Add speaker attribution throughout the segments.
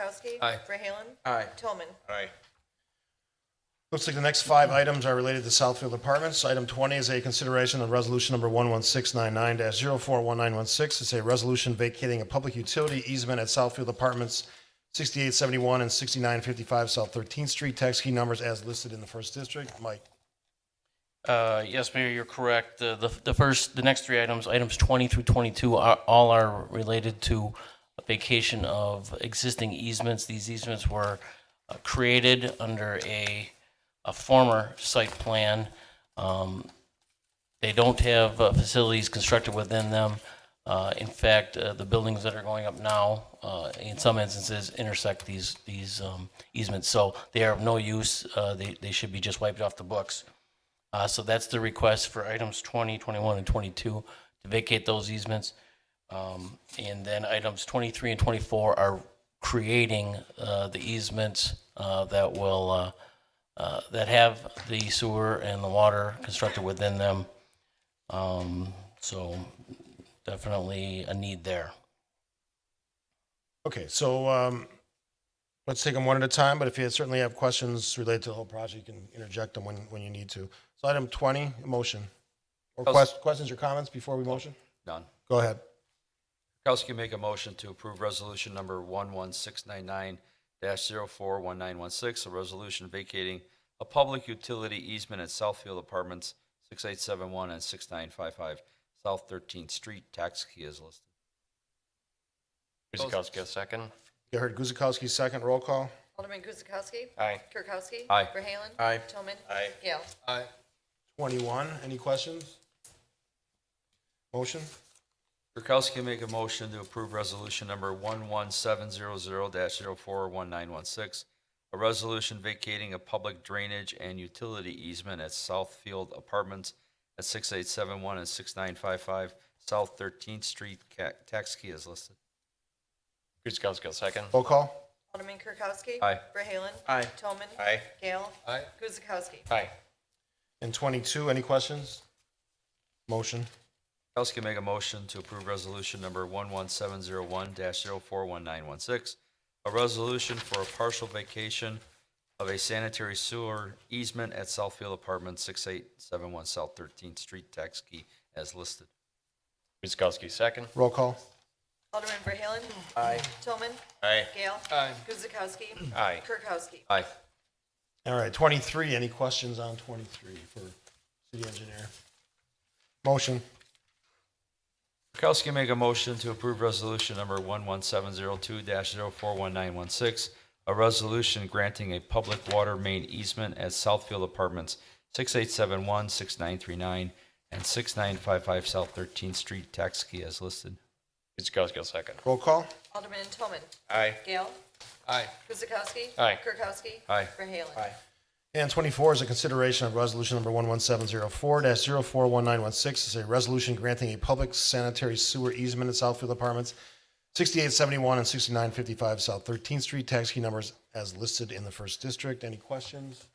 Speaker 1: Kirkowski.
Speaker 2: Aye.
Speaker 1: Verhaelen.
Speaker 3: Aye.
Speaker 1: Tolman.
Speaker 4: Aye.
Speaker 5: Looks like the next five items are related to Southfield Apartments. Item 20 is a consideration of resolution number 11699-041916. It's a resolution vacating a public utility easement at Southfield Apartments, 6871 and 6955 South 13th Street, tax key numbers as listed in the first district. Mike?
Speaker 2: Uh, Yes, Mayor, you're correct. The, the- the first, the next three items, items 20 through 22, are, all are related to vacation of existing easements. These easements were uh, created under a, a former site plan. Um, They don't have uh, facilities constructed within them. Uh, In fact, uh, the buildings that are going up now, uh, in some instances, intersect these, these um, easements. So they are of no use. Uh, They, they should be just wiped off the books. Uh, so that's the request for items 20, 21, and 22 to vacate those easements. Um, and then items 23 and 24 are creating uh, the easements uh, that will uh, uh, that have the sewer and the water constructed within them. Um, so definitely a need there.
Speaker 5: Okay, so um, let's take them one at a time, but if you certainly have questions related to the whole project, you can interject them when, when you need to. So item 20, motion. Or
Speaker 3: I'll
Speaker 5: quest- questions or comments before we motion?
Speaker 3: None.
Speaker 5: Go ahead.
Speaker 3: Kirkowski make a motion to approve resolution number 11699-041916, a resolution vacating a public utility easement at Southfield Apartments, 6871 and 6955 South 13th Street, tax key is listed.
Speaker 2: Guzekowski, second.
Speaker 5: You heard Guzekowski's second roll call?
Speaker 1: Alderman Guzekowski.
Speaker 2: Aye.
Speaker 1: Kirkowski.
Speaker 3: Aye.
Speaker 1: Verhaelen.
Speaker 5: Aye.
Speaker 1: Tolman.
Speaker 4: Aye.
Speaker 1: Gale.
Speaker 5: 21, any questions? Motion?
Speaker 3: Kirkowski make a motion to approve resolution number 11700-041916, a resolution vacating a public drainage and utility easement at Southfield Apartments at 6871 and 6955 South 13th Street. Ca- Tax key is listed.
Speaker 2: Guzekowski, second.
Speaker 5: Roll call?
Speaker 1: Alderman Kirkowski.
Speaker 3: Aye.
Speaker 1: Verhaelen.
Speaker 5: Aye.
Speaker 1: Tolman.
Speaker 4: Aye.
Speaker 1: Gale.
Speaker 4: Aye.
Speaker 1: Guzekowski.
Speaker 2: Aye.
Speaker 5: And 22, any questions? Motion?
Speaker 3: Kirkowski make a motion to approve resolution number 11701-041916, a resolution for a partial vacation of a sanitary sewer easement at Southfield Apartments, 6871 South 13th Street, tax key as listed.
Speaker 2: Guzekowski, second.
Speaker 5: Roll call?
Speaker 1: Alderman Verhaelen. Aye. Tolman.
Speaker 4: Aye.
Speaker 1: Gale. Aye. Guzekowski.
Speaker 2: Aye.
Speaker 1: Kirkowski.
Speaker 3: Aye.
Speaker 5: All right, 23, any questions on 23 for city engineer? Motion?
Speaker 3: Kirkowski make a motion to approve resolution number 11702-041916, a resolution granting a public water main easement at Southfield Apartments, 6871, 6939, and 6955 South 13th Street, tax key as listed.
Speaker 2: Guzekowski, second.
Speaker 5: Roll call?
Speaker 1: Alderman Tolman.
Speaker 4: Aye.
Speaker 1: Gale.
Speaker 4: Aye.
Speaker 1: Guzekowski.
Speaker 2: Aye.
Speaker 1: Kirkowski.
Speaker 3: Aye.
Speaker 1: Verhaelen.
Speaker 4: Aye.
Speaker 5: And 24 is a consideration of resolution number 11704-041916. It's a resolution granting a public sanitary sewer easement at Southfield Apartments, 6871 and 6955 South 13th Street, tax key numbers as listed in the first district. Any questions?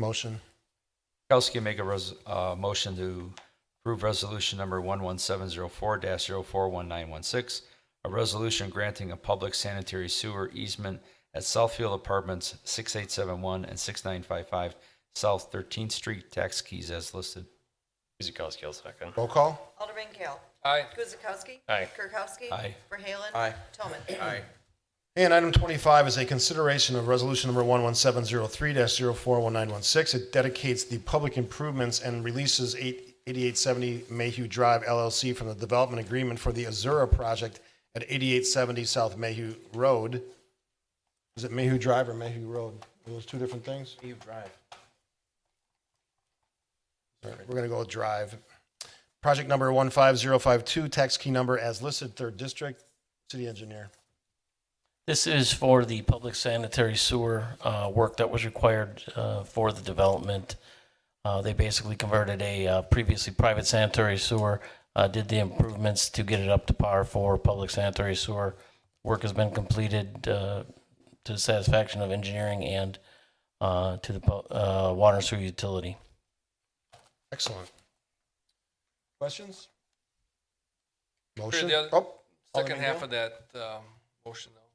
Speaker 5: Motion?
Speaker 3: Kirkowski make a res, uh, motion to approve resolution number 11704-041916, a resolution granting a public sanitary sewer easement at Southfield Apartments, 6871 and 6955 South 13th Street, tax keys as listed.
Speaker 2: Guzekowski, second.
Speaker 5: Roll call?
Speaker 1: Alderman Gale.
Speaker 4: Aye.
Speaker 1: Guzekowski.
Speaker 2: Aye.
Speaker 1: Kirkowski.
Speaker 3: Aye.
Speaker 1: Verhaelen.
Speaker 4: Aye.
Speaker 1: Tolman.
Speaker 4: Aye.
Speaker 5: And item 25 is a consideration of resolution number 11703-041916. It dedicates the public improvements and releases 8 8870 Mayhew Drive LLC from the development agreement for the Azura project at 8870 South Mayhew Road. Is it Mayhew Drive or Mayhew Road? Are those two different things?
Speaker 4: Eve Drive.
Speaker 5: All right, We're going to go with Drive. Project number 15052, tax key number as listed, third district, city engineer.
Speaker 2: This is for the public sanitary sewer uh, work that was required uh, for the development. Uh, They basically converted a uh, previously private sanitary sewer, uh, did the improvements to get it up to par for public sanitary sewer. Work has been completed uh, to the satisfaction of engineering and uh, to the pu- uh, water and sewer utility.
Speaker 5: Excellent. Questions? Oh, Motion?
Speaker 4: the other-
Speaker 5: Oh,
Speaker 4: Second
Speaker 5: Alderman
Speaker 4: half
Speaker 5: Gale?
Speaker 4: of that um, motion, though.